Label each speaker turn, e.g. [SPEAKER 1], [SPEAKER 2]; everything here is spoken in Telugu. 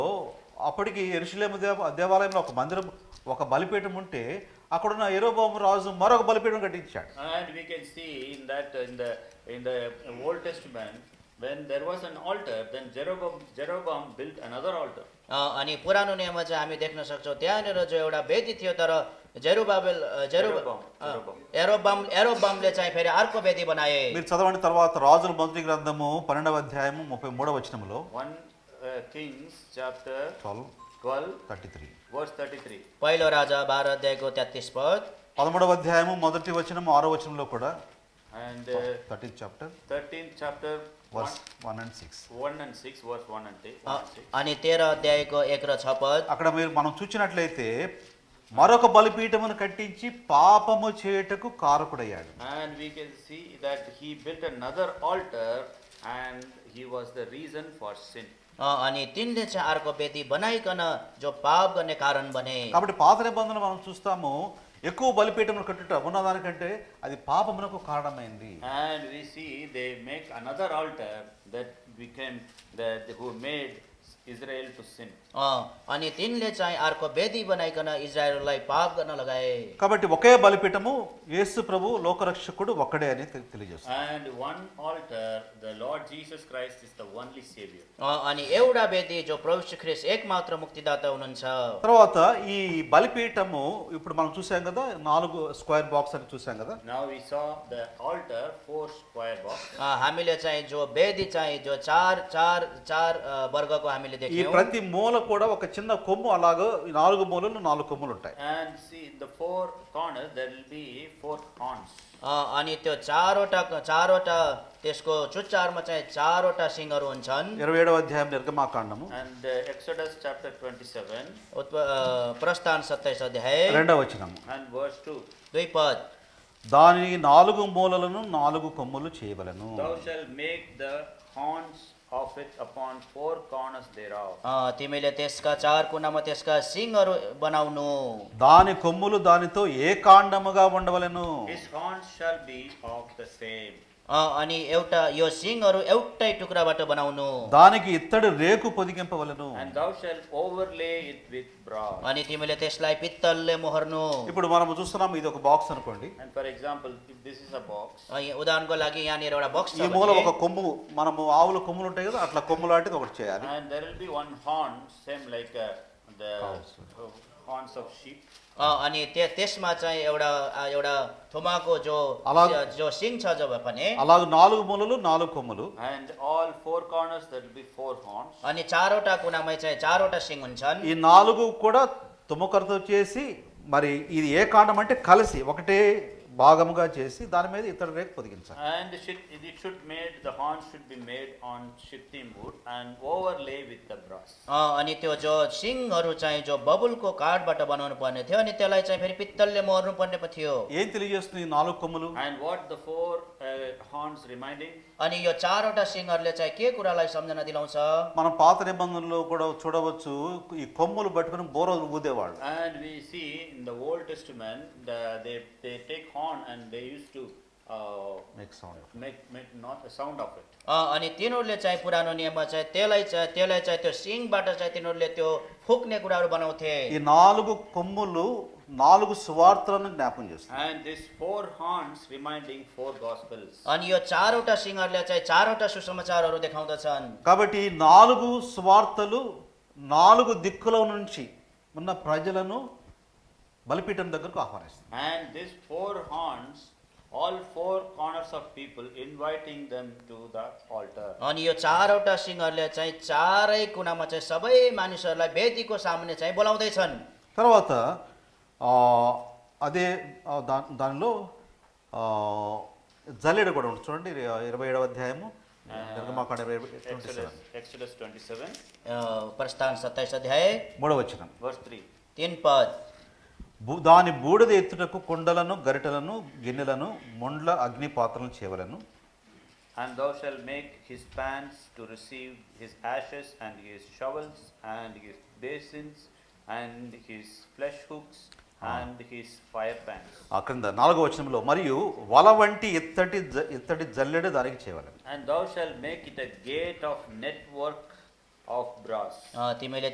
[SPEAKER 1] అప్పటికి ఎరుషులేము దేవ దేవాలయంలో ఒక మందిరం ఒక బలిపీఠం ఉంటే అక్కడున్న ఎరోబాము రాజు మరొక బలిపీఠం కట్టించాడు
[SPEAKER 2] And we can see in that, uh, in the, in the uh, Old Testament, when there was an altar, then Jeroboam, Jeroboam built another altar.
[SPEAKER 3] अ, अनि पुरानो नियममा चाहिँ हामी देख्न सक्छौँ त्यहाँनिर जो एउटा वेदी थियो तर जेरुबाबेल अ, जेरु
[SPEAKER 2] एरोबाम,
[SPEAKER 3] अ,
[SPEAKER 2] एरोबाम।
[SPEAKER 3] एरोबाम एरोबामले चाहिँ फेरि अर्को वेदी बनाए
[SPEAKER 1] మీరు చదవండి తర్వాత రాజుల మొదటి గ్రంథము పన్నెండవ అధ్యాయము ముప్పై మూడవ వచనంలో
[SPEAKER 2] One uh, Kings chapter
[SPEAKER 1] twelve
[SPEAKER 2] twelve,
[SPEAKER 1] thirty three
[SPEAKER 2] verse thirty-three.
[SPEAKER 3] पहिलो राजा बाह्र अध्यायको तेत्तिस पद
[SPEAKER 1] పదమూడవ అధ్యాయము మొదటి వచనం ఆరో వచనంలో కూడా
[SPEAKER 2] And uh,
[SPEAKER 1] thirteen chapter
[SPEAKER 2] thirteenth chapter, one,
[SPEAKER 1] verse one and six
[SPEAKER 2] one and six, verse one and thi-
[SPEAKER 3] uh,
[SPEAKER 2] one and six.
[SPEAKER 3] अनि तेह्र अध्यायको एक र छ पद
[SPEAKER 1] అక్కడ మీరు మనం చూసినట్లయితే మరొక బలిపీఠమును కట్టించి పాపము చేయుటకు కారకుడయ్యాడు
[SPEAKER 2] And we can see that he built another altar and he was the reason for sin.
[SPEAKER 3] अ, अनि तिनले चाहिँ अर्को वेदी बनाइकन जो पाप गर्ने कारण बने
[SPEAKER 1] కాబట్టి పాత నిబంధన మనం చూస్తాము ఎక్కువ బలిపీఠములు కట్టుట ఉన్నదానికంటే అది పాపమునకు కారణమైంది
[SPEAKER 2] And we see they make another altar that became, that who made Israel to sin.
[SPEAKER 3] अ, अनि तिनले चाहिँ अर्को वेदी बनाइकन इजरायललाई पाप गर्न लगाए
[SPEAKER 1] కాబట్టి ఒకే బలిపీఠము యేసు ప్రభు లోకరక్షకుడు ఒక్కడే అని తె- తెలియజేస్తుంది
[SPEAKER 2] And one altar, the Lord Jesus Christ is the only Savior.
[SPEAKER 3] अ, अनि एउटा वेदी जो प्रभु श्री ख्रिस्ट एकमात्र मुक्तिदाता हुनुहुन्छ
[SPEAKER 1] తర్వాత ఈ బలిపీఠము ఇప్పుడు మనం చూసాం కదా నాలుగు స్క్వేర్ బాక్స్ అని చూసాం కదా
[SPEAKER 2] Now we saw the altar, four square box.
[SPEAKER 3] अ, हामीले चाहिँ जो वेदी चाहिँ जो चार चार चार अ, वर्गको हामीले
[SPEAKER 1] ఈ
[SPEAKER 3] देख्यौँ
[SPEAKER 1] ప్రతి మూల కూడా ఒక చిన్న కొమ్ము అలాగే ఈ నాలుగు మూలలు నాలుగు కొమ్ములు ఉంటాయి
[SPEAKER 2] And see, in the four corners, there will be four horns.
[SPEAKER 3] अ, अनि त्यो चारवटा चारवटा त्यसको चुच्चारमा चाहिँ चारवटा सिङहरू हुन्छन्
[SPEAKER 1] ఇరవై ఏడవ అధ్యాయం నిర్గమాకాండము
[SPEAKER 2] And uh, Exodus chapter twenty-seven
[SPEAKER 3] उत्प अ, प्रस्थान सत्ताइस अध्याय
[SPEAKER 1] రెండవ వచనము
[SPEAKER 2] and verse two.
[SPEAKER 3] दुई पद
[SPEAKER 1] దాని నాలుగు మూలలను నాలుగు కొమ్ములు చేయవలను
[SPEAKER 2] Thou shalt make the horns of it upon four corners thereof.
[SPEAKER 3] अ, तिमीले त्यसका चार कुनामा त्यसका सिङहरू बनाउनु
[SPEAKER 1] దాని కొమ్ములు దానితో ఏకాండముగా ఉండవలను
[SPEAKER 2] His horns shall be of the same.
[SPEAKER 3] अ, अनि एउटा यो सिङहरू एउटै टुक्राबाट बनाउनु
[SPEAKER 1] దానికి ఇత్తడి రేకు పొదిగింపవలను
[SPEAKER 2] And thou shalt overlay it with brass.
[SPEAKER 3] अनि तिमीले त्यसलाई पित्तलले मोहर्नु
[SPEAKER 1] ఇప్పుడు మనం చూస్తున్నాం ఇది ఒక బాక్స్ అనుకోండి
[SPEAKER 2] And for example, if this is a box,
[SPEAKER 3] अ, यहाँ उदाहरणको लागि यहाँनिर एउटा बक्स
[SPEAKER 1] ఈ
[SPEAKER 3] छ
[SPEAKER 1] మూల
[SPEAKER 3] भने,
[SPEAKER 1] ఒక కొమ్ము మనము ఆవుల కొమ్ములు ఉంటాయి కదా అట్లా కొమ్ము లాంటిది ఒకటి చేయాలి
[SPEAKER 2] and there will be one horn, same like uh, the uh, horns of sheep.
[SPEAKER 3] अ, अनि त्य- त्यसमा चाहिँ एउटा अ, एउटा थुमाको जो
[SPEAKER 1] अलग-
[SPEAKER 3] जो सिङ छ जब भने
[SPEAKER 1] అలాగే నాలుగు మూలలు నాలుగు కొమ్ములు
[SPEAKER 2] And all four corners, there will be four horns.
[SPEAKER 3] अनि चारवटा कुनामा चाहिँ चारवटा सिङ हुन्छन्
[SPEAKER 1] ఈ నాలుగు కూడా తుమ్మకరతో చేసి మరి ఇది ఏ కాండం అంటే కలిసి ఒకటే భాగముగా చేసి దాని మీద ఇతడు రేకు పొదిగించాలి
[SPEAKER 2] And it should, it should made, the horns should be made on shittim wood and overlay with the brass.
[SPEAKER 3] अ, अनि त्यो जो सिङहरू चाहिँ जो बबुलको काठबाट बनाउनु पर्ने थियो अनि त्यसलाई चाहिँ फेरि पित्तलले मोर्नु पर्ने पो थियो
[SPEAKER 1] ఏం తెలియజేస్తుంది ఈ నాలుగు కొమ్ములు
[SPEAKER 2] And what the four uh, horns reminding?
[SPEAKER 3] अनि यो चारवटा सिङहरूले चाहिँ के कुरालाई सम्झना दिलाउँछ
[SPEAKER 1] మనం పాత నిబంధనలో కూడా చూడవచ్చు ఈ కొమ్ములు పట్టుకుని బోరలు ఊదేవాళ్ళు
[SPEAKER 2] And we see in the Old Testament, the, they, they take horn and they used to uh,
[SPEAKER 1] Make sound.
[SPEAKER 2] make, make not a sound of it.
[SPEAKER 3] अ, अनि तिनीहरूले चाहिँ पुरानो नियममा चाहिँ त्यसलाई चाहिँ त्यसलाई चाहिँ त्यो सिङबाट चाहिँ तिनीहरूले त्यो फुक्ने कुराहरू बनाउँथे
[SPEAKER 1] ఈ నాలుగు కొమ్ములు నాలుగు సువార్తలను జ్ఞాపం చేస్తుంది
[SPEAKER 2] And these four horns reminding four gospels.
[SPEAKER 3] अनि यो चारवटा सिङहरूले चाहिँ चारवटा सुसमाचारहरू देखाउँदछन्
[SPEAKER 1] కాబట్టి ఈ నాలుగు సువార్తలు నాలుగు దిక్కుల నుంచి ఉన్న ప్రజలను బలిపీఠం దగ్గరకు ఆహ్వానిస్తుంది
[SPEAKER 2] And these four horns, all four corners of people inviting them to the altar.
[SPEAKER 3] अनि यो चारवटा सिङहरूले चाहिँ चारै कुनामा चाहिँ सबै मानिसहरूलाई वेदीको सामुन्ने चाहिँ बोलाउँदैछन्
[SPEAKER 1] తర్వాత ఆ, అదే ఆ, దా దానిలో ఆ, జల్లెడ కూడా ఉంటుంది చూడండి ఇర- ఇరవై ఏడవ అధ్యాయము నిర్గమాకాండ ఇరవై ట్వంటీ
[SPEAKER 2] Exodus, Exodus twenty-seven,
[SPEAKER 3] अ, प्रस्थान सत्ताइस अध्याय
[SPEAKER 1] మూడవ వచనం
[SPEAKER 2] verse three.
[SPEAKER 3] तिन पद
[SPEAKER 1] భూ- దాని బూడిద ఎత్తుటకు కుండలను గరిటలను గిన్నెలను మొండ్ల అగ్ని పాత్రలను చేయవలను
[SPEAKER 2] And thou shalt make his pans to receive his ashes and his shovels and his basins and his flesh hooks and his fire pans.
[SPEAKER 1] ఆ క్రింద నాలుగో వచనంలో మరియు వల వంటి ఇత్తటి జ- ఇత్తటి జల్లెడ దానికి చేయవలను
[SPEAKER 2] And thou shalt make it a gate of network of brass.
[SPEAKER 3] अ, तिमीले